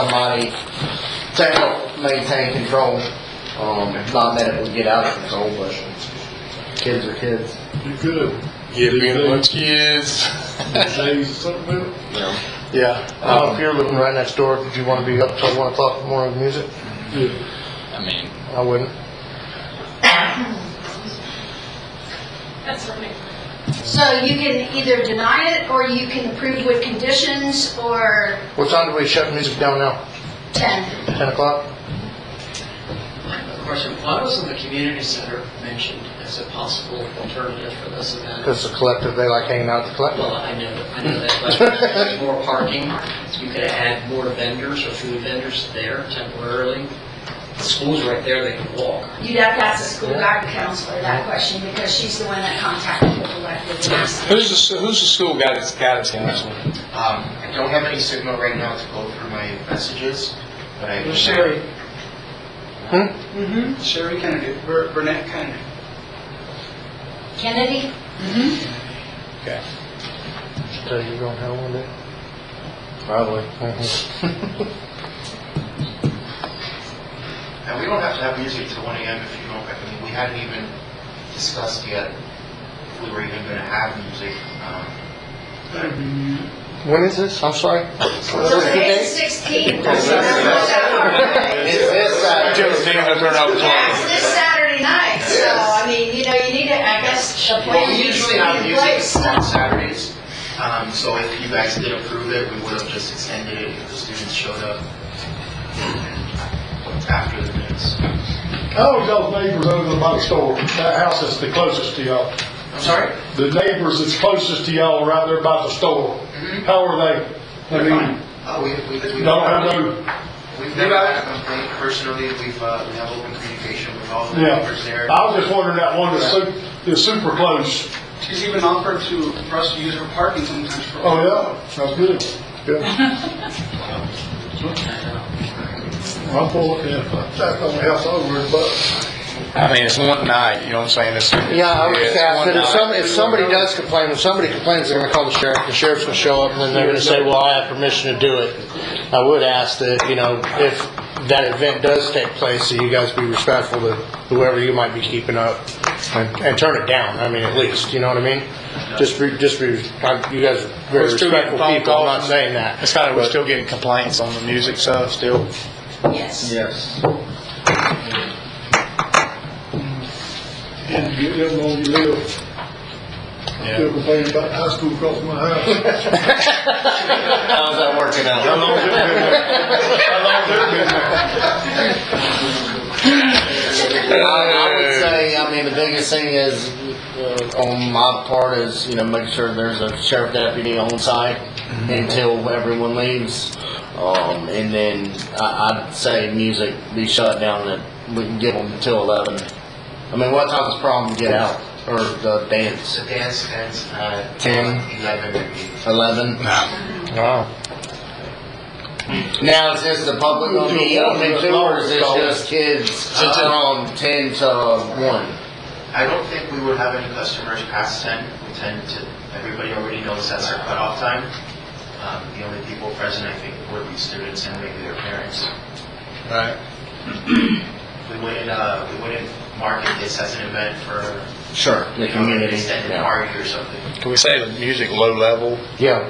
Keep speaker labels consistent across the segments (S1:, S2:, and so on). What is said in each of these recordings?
S1: somebody to help maintain control. Um, not that it would get out of control, but kids are kids.
S2: You could.
S3: Yeah,
S2: These
S3: being with
S2: days-
S3: kids.
S2: these days, something else.
S1: Yeah,
S3: Um,
S1: if you're living right next door, did you wanna be up till one o'clock in the morning with music?
S2: Yeah.
S3: I mean,
S1: I wouldn't.
S4: That's right.
S5: So you can either deny it, or you can approve with conditions, or
S1: What time do we shut music down now?
S5: 10.
S1: Ten o'clock?
S6: Question, why wasn't the community center mentioned as a possible alternative for this event?
S1: Cause the collective, they like hanging out at the
S6: Well,
S1: collective.
S6: I know, I know that, but there's more parking, you could add more vendors or food vendors there temporarily. The school's right there, they can walk.
S5: You'd have to ask the school guidance counselor that question, because she's the one that contacted the collective.
S3: who's the, who's the school guidance, guidance counselor?
S7: Um, I don't have any signal right now to go through my messages, but I.
S1: Hmm?
S8: Mm-hmm, Sherry Kennedy, Bur- Burnett Kennedy.
S5: Kennedy?
S1: So you're gonna have one day? Probably. Mhm.
S7: Now, we don't have to have music till one AM if you don't, I mean, we hadn't even discussed yet if we were even gonna have music. Um,
S1: When is this? I'm sorry.
S5: So today's 16th.
S1: It's this
S3: Just thinking of turn out the
S5: Yeah,
S3: lights.
S5: it's this Saturday night, so, I mean, you know, you need to, I guess, the
S7: Well,
S5: plan
S7: we
S5: needs to
S7: usually
S5: be
S7: have
S5: in place.
S7: music on Saturdays, um, so if you guys did approve it, we would have just extended it if the students showed up after the news.
S2: How is y'all's Oh, neighbors over by the store? That house that's the closest to y'all.
S7: I'm sorry?
S2: The neighbors that's closest to y'all are right there by the store.
S3: Mm-hmm.
S2: How are they? I mean,
S7: Oh, we, we, we.
S2: don't have no,
S7: We've never had a complaint personally, we've, uh, we have open communication with all the
S2: yeah.
S7: members there.
S2: I was just wondering that one that's su- that's super close.
S8: She's even offered to, for us to use her parking sometimes for.
S2: Oh, yeah, sounds good. Yeah. I'm for it, yeah. That's on the house over, but.
S3: I mean, it's one night, you know what I'm saying? It's,
S1: Yeah, I would
S3: it's
S1: say, I
S3: one
S1: said, if
S3: night.
S1: some, if somebody does complain, if somebody complains, they're gonna call the sheriff, the sheriff's gonna show up, and then they're gonna say, well, I have permission to do it. I would ask that, you know, if that event does take place, that you guys be respectful to whoever you might be keeping up, and, and turn it down, I mean, at least, you know what I mean? Just be, just be, I- you guys are very
S3: We're still getting
S1: respectful people,
S3: phone
S1: I'm not
S3: calls.
S1: saying that.
S3: It's kind of, we're
S1: But-
S3: still getting complaints on the music stuff still.
S5: Yes.
S1: Yes.
S2: And you get them on your live. Still complaining about high school across my house.
S1: How's that working out?
S2: How long's it been there? How long's it been
S1: I,
S2: there?
S1: I would say, I mean, the biggest thing is, uh, on my part is, you know, make sure there's a sheriff deputy on site
S3: Mm-hmm.
S1: until everyone leaves. Um, and then I, I'd say music be shut down and we can give them till eleven. I mean, what time's prom get out or the dance?
S7: The dance ends
S6: uh,
S7: at.
S1: Ten.
S7: Eleven, I mean.
S1: Eleven?
S3: Wow.
S1: Now, is this the public gonna be open too, or is this just kids from ten to one?
S7: I don't think we would have any customers past ten. We tend to, everybody already knows that's our cutoff time. Um, the only people present, I think, would be students and maybe their parents.
S3: Right.
S7: We wouldn't, uh, we wouldn't market this as an event for,
S1: Sure. The
S7: you know, an
S1: community,
S7: extended
S1: yeah.
S7: party or something.
S3: Can we say the music low level?
S1: Yeah.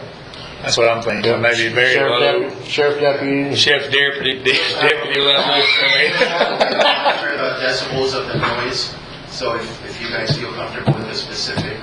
S3: That's what I'm thinking, maybe very
S1: Sheriff
S3: low.
S1: deputy, sheriff deputy.
S3: Chef deputy, deputy level. I mean.
S7: Monitor the decibels of the noise, so if, if you guys feel comfortable with a specific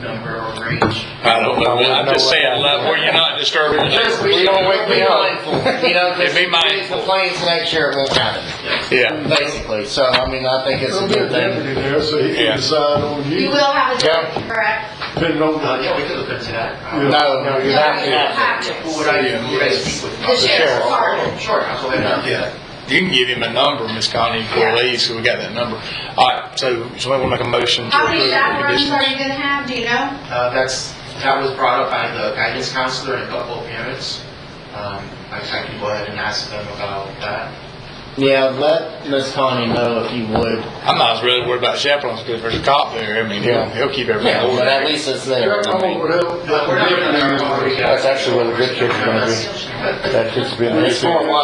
S7: number or range,
S3: I don't know, I'm just saying level, where you're not disturbing. the
S1: We don't wake me up, you know,
S3: Yeah,
S1: because
S3: be
S1: if somebody
S3: mindful.
S1: complains next year, it won't happen,
S3: Yeah,
S1: basically. So, I mean, I think it's a
S2: There'll be a
S1: good thing.
S2: deputy there, so he
S3: Yeah.
S2: can decide on
S5: You
S2: you,
S5: will have a
S1: Yeah.
S5: date, correct?
S2: depending on
S7: uh,
S2: the
S7: yeah, we could look into that. Um,
S1: No, no, you have to have it.
S7: Who would I, who would I speak with?
S5: The sheriff's department.
S7: Sure, I'll go ahead and do that.
S3: you can give him a number, Miss Connie, before he leaves, so we got that number. All right, so somebody want to make a motion to
S5: How many
S3: approve the
S5: chaperones are you
S3: conditions?
S5: gonna have, do you know?
S7: Uh, that's, that was brought up by the guidance counselor and a couple of parents. Um, I I can go ahead and ask them about that.
S1: Yeah, let Miss Connie know if you would.
S3: I'm not really worried about chaperones, because there's a cop there, I mean, he'll,
S1: Yeah.
S3: he'll keep everything
S1: Yeah, but at
S3: ordered.
S1: least it's there. I mean,
S7: But we're not gonna-
S1: That's actually where the good kids are gonna be. That kid's been. It's more